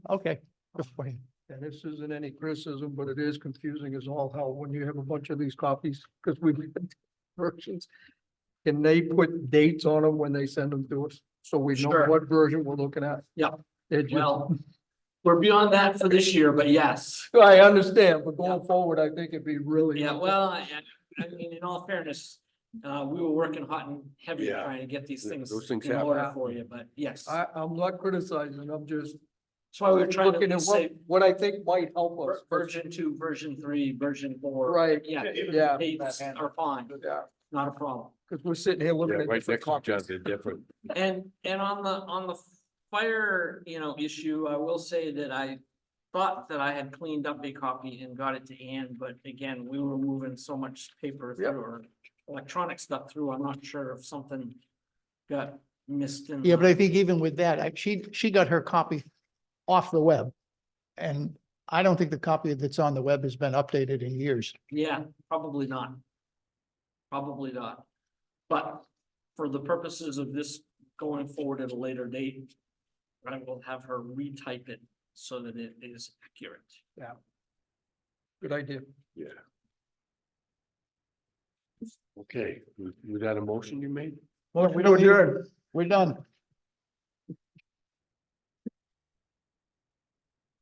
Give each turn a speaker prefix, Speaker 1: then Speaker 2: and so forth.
Speaker 1: Okay, good for you.
Speaker 2: Um, And this isn't any criticism, but it is confusing as all hell when you have a bunch of these copies, because we've got versions. Can they put dates on them when they send them to us? So we know
Speaker 3: Sure.
Speaker 2: what version we're looking at?
Speaker 3: Yep.
Speaker 2: It just-
Speaker 3: Well, we're beyond that for this year, but yes.
Speaker 2: I understand, but going
Speaker 3: Yeah.
Speaker 2: forward, I think it'd be really.
Speaker 3: Yeah, well, I, I- I mean, in all fairness, uh, we were working hot and heavy
Speaker 4: Yeah.
Speaker 3: trying to get these
Speaker 4: Th-
Speaker 3: things
Speaker 4: those things
Speaker 3: in order
Speaker 2: happen.
Speaker 3: for you, but yes.
Speaker 2: I, I'm not criticizing, I'm just
Speaker 3: That's why we we're trying
Speaker 2: looking
Speaker 3: to
Speaker 2: at what,
Speaker 3: say
Speaker 2: what I think might help us.
Speaker 3: ver- version two, version three, version four.
Speaker 2: Right,
Speaker 3: Yeah.
Speaker 2: yeah.
Speaker 3: Dates are fine,
Speaker 2: yeah,
Speaker 3: not a problem.
Speaker 2: because we're sitting here
Speaker 4: Yeah,
Speaker 2: looking at
Speaker 4: right
Speaker 2: different
Speaker 4: next to each
Speaker 2: copies.
Speaker 4: other, they're different.
Speaker 3: And, and on the, on the fire, you know, issue, I will say that I thought that I had cleaned up a copy and got it to Ann, but again, we were moving so much paper
Speaker 2: Yep.
Speaker 3: through or electronic stuff through, I'm not sure if something got missed in.
Speaker 1: Yeah, but I
Speaker 3: the-
Speaker 1: think even with that, I- she, she got her copy off the web. And I don't think the copy that's on the web has been updated in years.
Speaker 3: Yeah, probably not. Probably not. But for the purposes of this going forward at a later date, I will have her retype it so that it is accurate.
Speaker 2: Good idea.
Speaker 4: Yeah. Okay, was was that a motion you made?
Speaker 1: Well,
Speaker 2: To adjourn.
Speaker 1: We're done.